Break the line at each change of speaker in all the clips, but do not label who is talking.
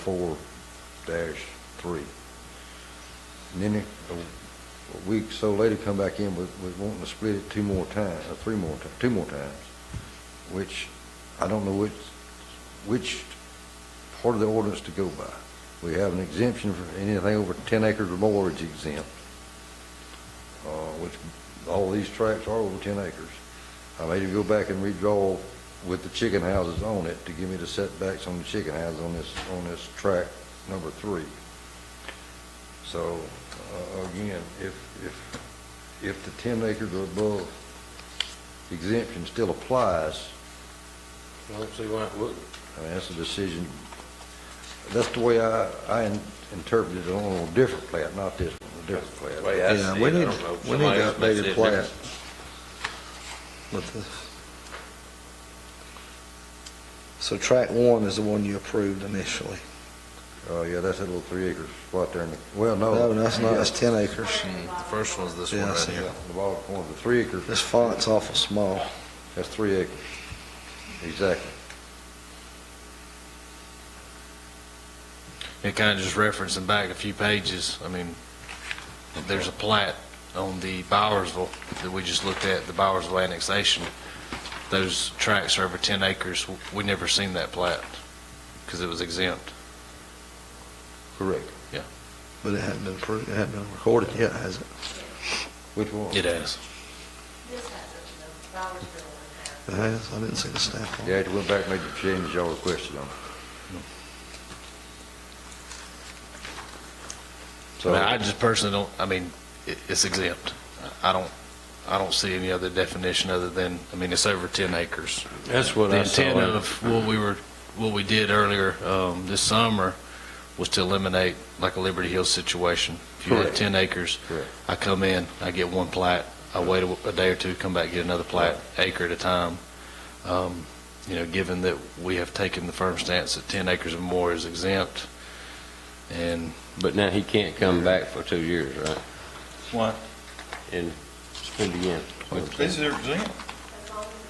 four dash three. And then a a week, so later come back in with, with wanting to split it two more times, or three more, ti- two more times, which I don't know which, which part of the ordinance to go by. We have an exemption for anything over ten acres or more is exempt, uh, which all these tracts are over ten acres. I made him go back and redraw with the chicken houses on it to give me the setbacks on the chicken houses on this, on this track number three. So, uh, again, if, if, if the ten acres or above exemption still applies,
I don't see why it wouldn't.
I mean, that's a decision, that's the way I, I in- interpreted it on a different plat, not this one, a different plat.
Way I
Yeah,
see
we
it, I
need-
don't know.
we need
Somebody else may see
updated
it
plat.
different.
with the... So track one is the one you approved initially.
Oh, yeah, that's that little three acre spot there in the, well, no.
No, that's not, that's
Yeah,
10 acres.
Mm, The first one's this one
Yeah, I
right
see
here.
that.
The bottom corner, the three acre,
This font's awful small.
that's three acres, exactly.
It kind of just referencing back a few pages. I mean, there's a plat on the Bowersville that we just looked at, the Bowersville annexation. Those tracts are over 10 acres. We never seen that plat because it was exempt.
Correct.
But it hadn't been approved, it hadn't been recorded yet, has it?
Which one?
It is.
This has it, the Bowersville one has.
It has, I didn't see the stamp on
Yeah,
it.
it went back and made the change y'all requested on it.
I
So,
mean, I just personally don't, I mean, it- it's exempt. I don't, I don't see any other definition other than, I mean, it's over 10 acres.
That's what
The
I saw.
intent of what we were, what we did earlier um, this summer was to eliminate like a Liberty Hills situation. If you had
Correct.
10 acres,
Correct.
I come in, I get one plat, I wait a a day or two, come back, get another plat, acre at a time. Um, You know, given that we have taken the firm stance that 10 acres or more is exempt, and
But now he can't come back for two years, right? And split again.
This is exempt.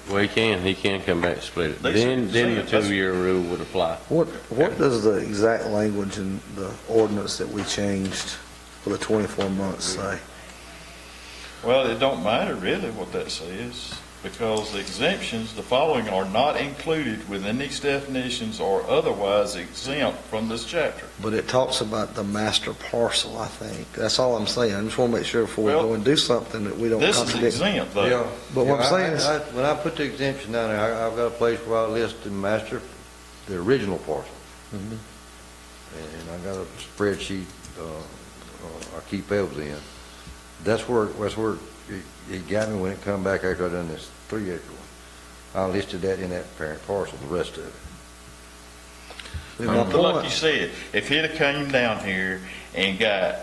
Well, he can, he can come back and split it.
They
Then,
said-
then the
said that's-
two-year rule would apply.
What, what does the exact language in the ordinance that we changed for the 24 months say?
Well, it don't matter really what that says, because the exemptions, the following are not included within these definitions or otherwise exempt from this chapter.
But it talks about the master parcel, I think. That's all I'm saying. I just want to make sure before we go
Well,
and do something that we don't
This is
contradict.
exempt
yeah.
though.
But what I'm
Yeah, I-
saying is-
I- When I put the exemption down there, I- I've got a place where I list the master, the original parcel.
Mm-hmm.
And I got a spreadsheet, uh, uh, I keep those in. That's where, that's where it, it got me when it come back after I done this three acre one. I listed that in that parent parcel, the rest of it.
And my
But like you
point-
said, if he'd have came down here and got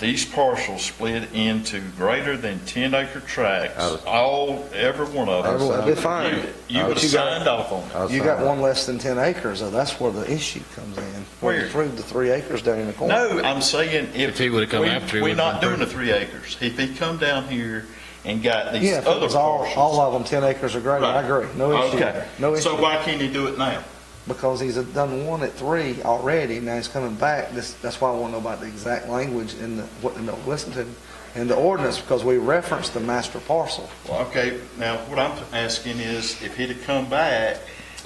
these parcels split into greater than ten acre
I
tracts,
would-
all, every one of
I would-
them.
Define it.
You
I
would
would-
have signed off on it.
I'll
You
sign
got
it.
one less than 10 acres, though, that's where the issue comes in. Where you
Where?
threw the three acres down in the corner.
No, I'm saying if.
If he would've come
we-
after, he
We're
would've
not
been
doing the three acres. If he come down here and got these
Yeah, if it
other
was all,
parcels.
all of them 10 acres or greater, I
Right.
agree, no issue,
Okay.
no
So
issue.
why can't he do it now?
Because he's done one at three already, now he's coming back, this, that's why I want to know about the exact language in the, what, in the Lexington, in the ordinance, because we referenced the master parcel.
Well, okay, now what I'm asking is if he'd have come back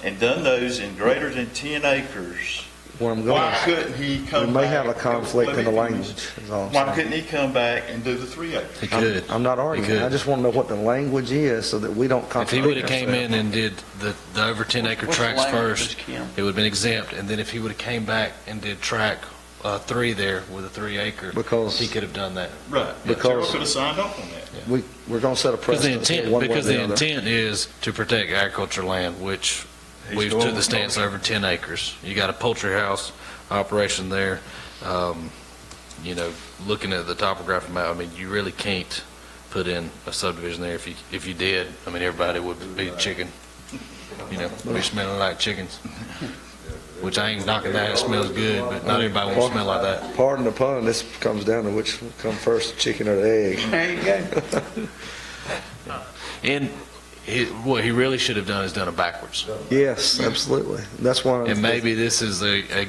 and done those in greater than ten acres,
Where I'm going,
why
is
couldn't he
we
come back?
may have a conflict
Let
in the
me finish.
language, is all I'm
Why
saying.
couldn't he come back and do the three acres?
he could.
I'm- I'm not
He
arguing,
could.
I just want to know what the language is, so that we don't
If he
contradict
would have came
ourselves.
in and did the, the over 10 acre
What's the
tracks
language,
first,
Kim?
it would have been exempt, and then if he would have came back and did track uh, three there with a three acre,
Because-
he could have done that.
Right. Terrell
Because-
could have signed off on that.
We, we're going to set a
Because the
precedent here,
intent,
one way or
because the
the other.
intent is to protect agriculture land, which
He's
we've
going
took the
with
stance
motion.
over 10 acres. You got a poultry house operation there, um, you know, looking at the topographic map, I mean, you really can't put in a subdivision there. If you, if you did, I mean, everybody would be chicken, you know, be smelling like chickens, which I ain't knocking that, it smells good, but not everybody won't smell like that.
Pardon the pun, this comes down to which will come first, the chicken or the egg.
And he- what he really should have done is done it backwards.
Yes, absolutely. That's why.
And maybe this is a, a